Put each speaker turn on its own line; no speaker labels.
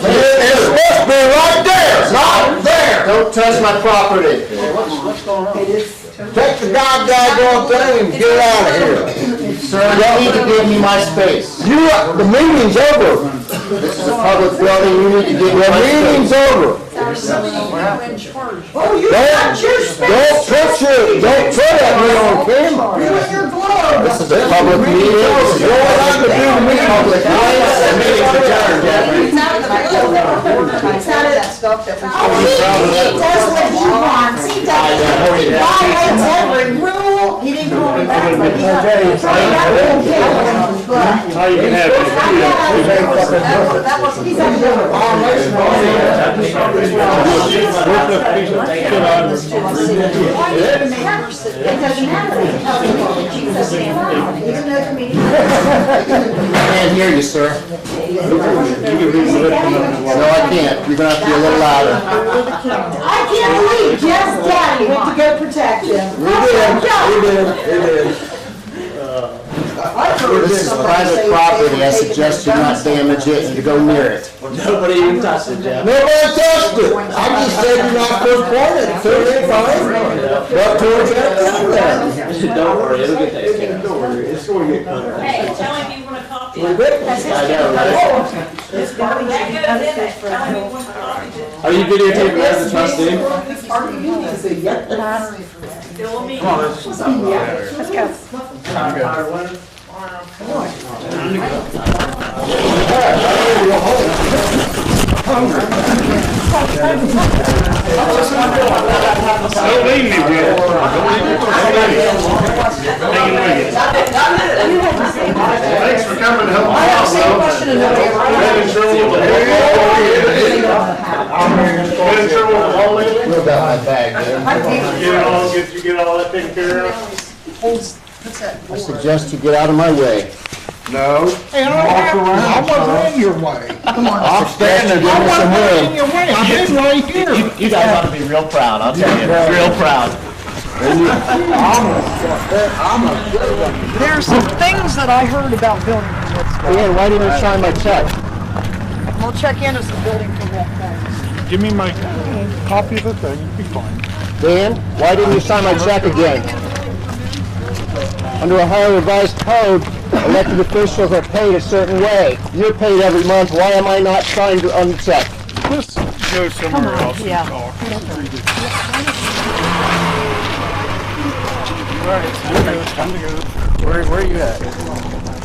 Don't touch my property.
What's, what's going on?
It is,
Take the goddamn thing and get out of here. Sir, you need to give me my space.
You, are- the meeting's over.
This is a public building, you need to give me
The
my
meeting's
space.
over.
Our zoning, you in charge.
oh, you
Don't,
got your space.
don't put your, don't put that on camera.
You and your glove.
This is a public meeting.
You're allowed to do the meeting.
Public notice, the meeting's adjourned, Jeffrey.
It's out of the blue. It's out of that stuff that was.
Oh, he, he does what he wants, he doesn't, he violates every rule, he didn't go to that, but he's a, trying not to get him, but.
How you can have
I'm
it?
not,
That was, that was, he's out of the blue.
it doesn't matter. Jesus, man. Even though the meeting-
Can't hear you, sir. No, I can't. You're gonna have to be a little louder.
I can't believe Jeff's daddy went to go protect him.
We did, we did, we did.
This is private property. I suggest you not damage it and to go near it.
Nobody even touched it, Jeff.
Nobody touched it. I just said you're not supposed to point it, so it ain't fine. But towards that thing there.
Don't worry, it'll get taken care of.
Hey, tell him you want a copy.
We did.
I know, right?
That goes in it. Tell him you want a copy.
Are you videotaping as a trustee?
Fill me.
Don't leave me, Bill. Don't leave me. Hang in with you. Thanks for coming to help me out, though. Been in trouble with the whole- Been in trouble with the whole lady?
What about my bag, dude?
Get it all, get, you get all that taken care of?
I suggest you get out of my way.
No.
And I have, I wasn't in your way.
I'm standing. Give
I
me some
wasn't in
room.
your way, I've been right here.
You guys ought to be real proud, I'll tell you, real proud.
There's some things that I heard about building permits.
Dan, why didn't you sign my check?
We'll check into some building permit things. Give me my copy of the thing, it'll be fine.
Dan, why didn't you sign my check again? Under Ohio Revised Code, elected officials are paid a certain way. You're paid every month, why am I not signed on the check?
Let's go somewhere else and talk. All right, I'm gonna go.
Where, where are you at?